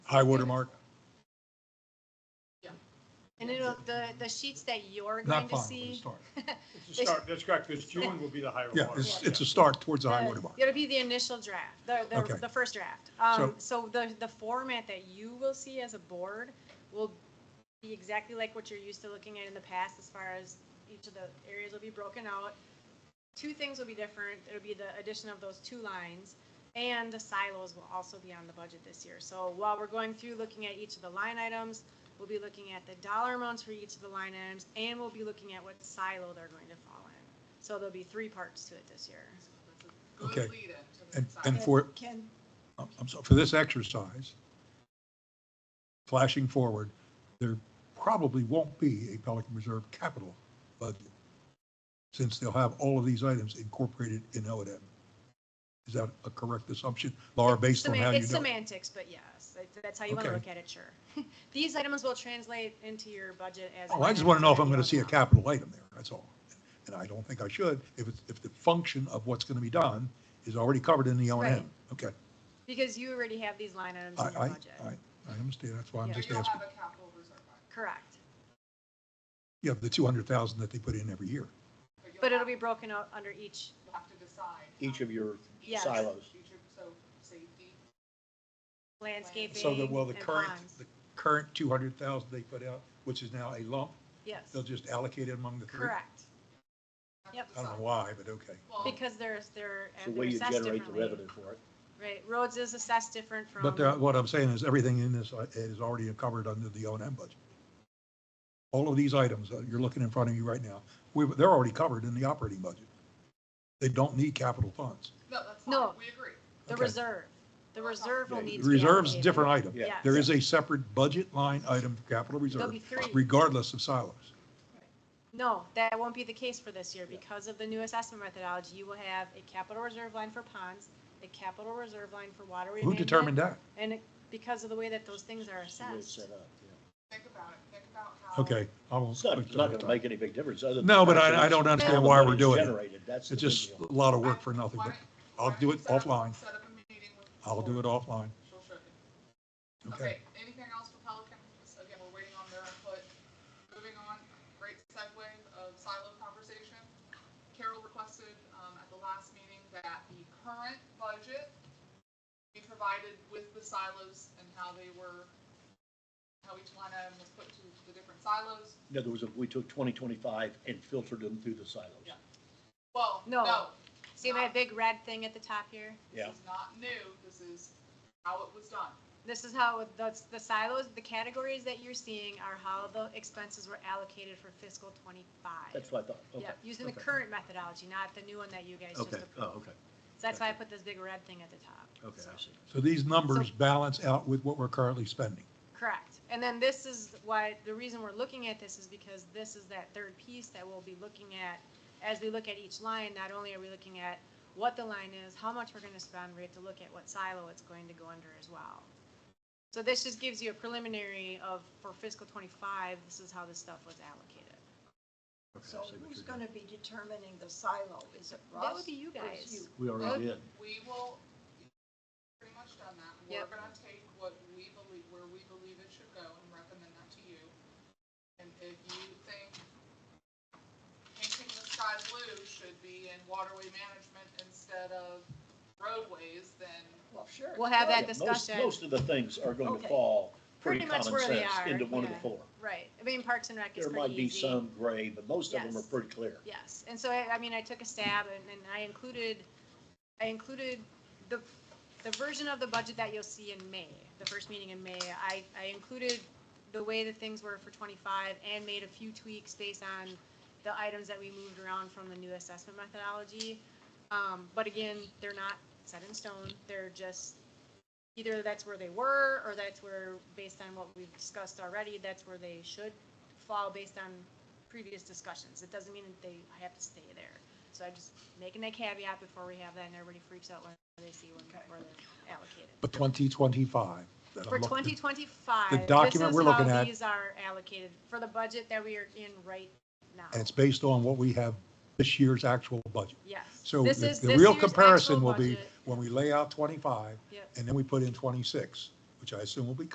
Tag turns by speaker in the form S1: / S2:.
S1: high water mark?
S2: And it'll, the, the sheets that you're going
S1: Not
S2: to
S1: fine, but it's a
S2: see.
S1: start.
S3: It's a start, that's correct, because June will be the higher
S1: Yeah,
S3: water.
S1: it's,
S3: mark.
S1: it's a start towards the high
S2: the-
S1: water mark.
S2: It'll be the initial draft, the,
S1: Okay.
S2: the, the first draft. Um, so the, the format that you will see as a board will be exactly like what you're used to looking at in the past as far as each of the areas will be broken out. Two things will be different. It'll be the addition of those two lines. And the silos will also be on the budget this year. So while we're going through looking at each of the line items, we'll be looking at the dollar amounts for each of the line items and we'll be looking at what silo they're going to fall in. So there'll be three parts to it this year.
S1: Okay. And,
S4: And,
S1: and for,
S2: Ken,
S1: I'm I'm sorry, for this exercise, flashing forward, there probably won't be a Pelican Reserve capital budget since they'll have all of these items incorporated in O and M. Is that a correct assumption, Laura, based on
S2: Seman-
S1: how you
S2: it's
S1: know?
S2: semantics, but yes, that- that's how you want to
S1: Okay.
S2: look at it, sure. These items will translate into your budget as.
S1: Oh, I just want to know if I'm going to see a capital item there, that's all. And I don't think I should, if it's, if the function of what's going to be done is already covered in the O and M.
S2: Right.
S1: Okay,
S2: Because you already have these line items
S1: I,
S2: in your
S1: I,
S2: budget.
S1: I, I understand, that's why I'm
S2: Yeah.
S1: just
S4: you don't
S1: asking.
S4: have a capital reserve fund.
S2: Correct.
S1: You have the 200,000 that they put in every year.
S4: you'll
S2: But it'll
S4: have-
S2: be broken out under each,
S4: You'll have to decide.
S5: each of your
S2: Yes.
S5: silos.
S4: Each of, so safety,
S2: landscaping
S1: So that, well, the
S2: and
S1: current,
S2: ponds.
S1: the current 200,000 they put out, which is now a lump,
S2: Yes,
S1: they'll just allocate it among the three?
S2: correct. Yep,
S1: I don't know why, but okay.
S4: well,
S2: because there's, they're
S5: It's the
S2: they're
S5: way you
S2: assessed
S5: generate the revenue
S2: differently.
S5: for it.
S2: Right, roads is assessed different from.
S1: But uh, what I'm saying is everything in this uh, is already covered under the O and M budget. All of these items that you're looking in front of you right now, we, they're already covered in the operating budget. They don't need capital funds.
S4: no, that's
S2: No.
S4: fine, we agree.
S2: The
S1: okay.
S2: reserve, the reserve will
S5: Yeah,
S2: need to be.
S1: Reserves,
S2: allocated.
S1: different item.
S5: Yeah.
S2: Yes.
S1: There is a separate budget line item for capital reserve,
S2: be three.
S1: regardless of silos.
S2: No, that won't be the case for this year. Because of the new assessment methodology, you will have a capital reserve line for ponds, a capital reserve line for water
S1: Who
S2: remainder.
S1: determined that?
S2: And it- because of the way that those things are
S5: It's the way it's
S2: assessed.
S5: set up, yeah.
S4: Think about it, think about how.
S1: Okay. I won't-
S5: It's not, it's not gonna make any big difference other than.
S1: No, but I-
S5: actually
S1: I don't understand
S5: how the
S1: why we're
S5: money's
S1: doing it.
S5: Generated, that's the
S1: It's
S5: big
S1: just
S5: deal.
S1: a lot of work for nothing,
S4: Why
S1: but
S4: don't- why
S1: I'll
S4: don't
S1: do
S4: you
S1: it
S4: set up-
S1: offline.
S4: Set up a meeting with. the
S1: I'll do it
S4: board?
S1: offline.
S4: She'll shake it.
S1: Okay.
S4: Okay, anything else for Pelican? Just, Again, we're waiting on their input. Moving on, great segue of silo conversation. Carol requested, um, at the last meeting that the current budget be provided with the silos and how they were, how each line item was put to the different silos.
S5: In other words, if we took twenty twenty-five and filtered them through the silos.
S4: Yeah. Well,
S2: No.
S4: no,
S2: See my big red thing at the top here?
S5: Yeah.
S4: this is not new. This is how it was done.
S2: This is how, that's, the silos, the categories that you're seeing are how the expenses were allocated for fiscal twenty-five.
S5: That's what I thought, okay.
S2: Yeah, using the
S5: okay.
S2: current methodology, not the new one that you guys just
S5: Okay,
S2: approved.
S5: oh, okay,
S2: So that's why I put this big red thing at the top.
S5: okay, I see.
S1: So these numbers balance out with what we're currently spending.
S2: Correct. And then this is why, the reason we're looking at this is because this is that third piece that we'll be looking at. As we look at each line, not only are we looking at what the line is, how much we're gonna spend, we have to look at what silo it's going to go under as well. So this just gives you a preliminary of, for fiscal twenty-five, this is how this stuff was allocated.
S5: Okay, I
S6: So
S5: see what
S6: who's
S5: you're
S6: going to be determining the silo? Is it Russ?
S2: That would be you
S6: or is
S2: guys.
S6: you?
S5: doing. We already did.
S4: We will, pretty much done that. We're
S2: Yep.
S4: gonna take what we believe, where we believe it should go and recommend that to you. And if you think painting the sky blue should be in waterway management instead of roadways, then
S6: Well, sure.
S2: We'll have that
S5: Yeah, most-
S2: discussion.
S5: Most of the things are going to
S6: Okay.
S5: fall pretty
S2: Pretty much
S5: common
S2: where they
S5: sense
S2: are,
S5: into one of the
S2: yeah.
S5: four.
S2: Right. I mean, Parks and Rec is
S5: There
S2: pretty
S5: might be
S2: easy.
S5: some gray, but most of them are
S2: Yes.
S5: pretty clear.
S2: Yes, and so I, I mean, I took a stab and, and I included, I included the, the version of the budget that you'll see in May, the first meeting in May. I, I included the way that things were for twenty-five and made a few tweaks based on the items that we moved around from the new assessment methodology. Um, but again, they're not set in stone, they're just, either that's where they were, or that's where, based on what we've discussed already, that's where they should fall based on previous discussions. It doesn't mean that they have to stay there. So I'm just making that caveat before we have that, and everybody freaks out when they see when, where they're allocated.
S1: But 2025. that I'm
S2: For
S1: looking-
S2: twenty twenty-five,
S1: The document we're looking at-
S2: These are allocated for the budget that we are in right now.
S1: And it's based on what we have this year's actual budget.
S2: Yes.
S1: So
S2: This
S1: the
S2: is
S1: the
S2: this
S1: real
S2: year's actual
S1: comparison will be
S2: budget.
S1: when we lay out 25
S2: Yep.
S1: and then we put in 26, which I assume will be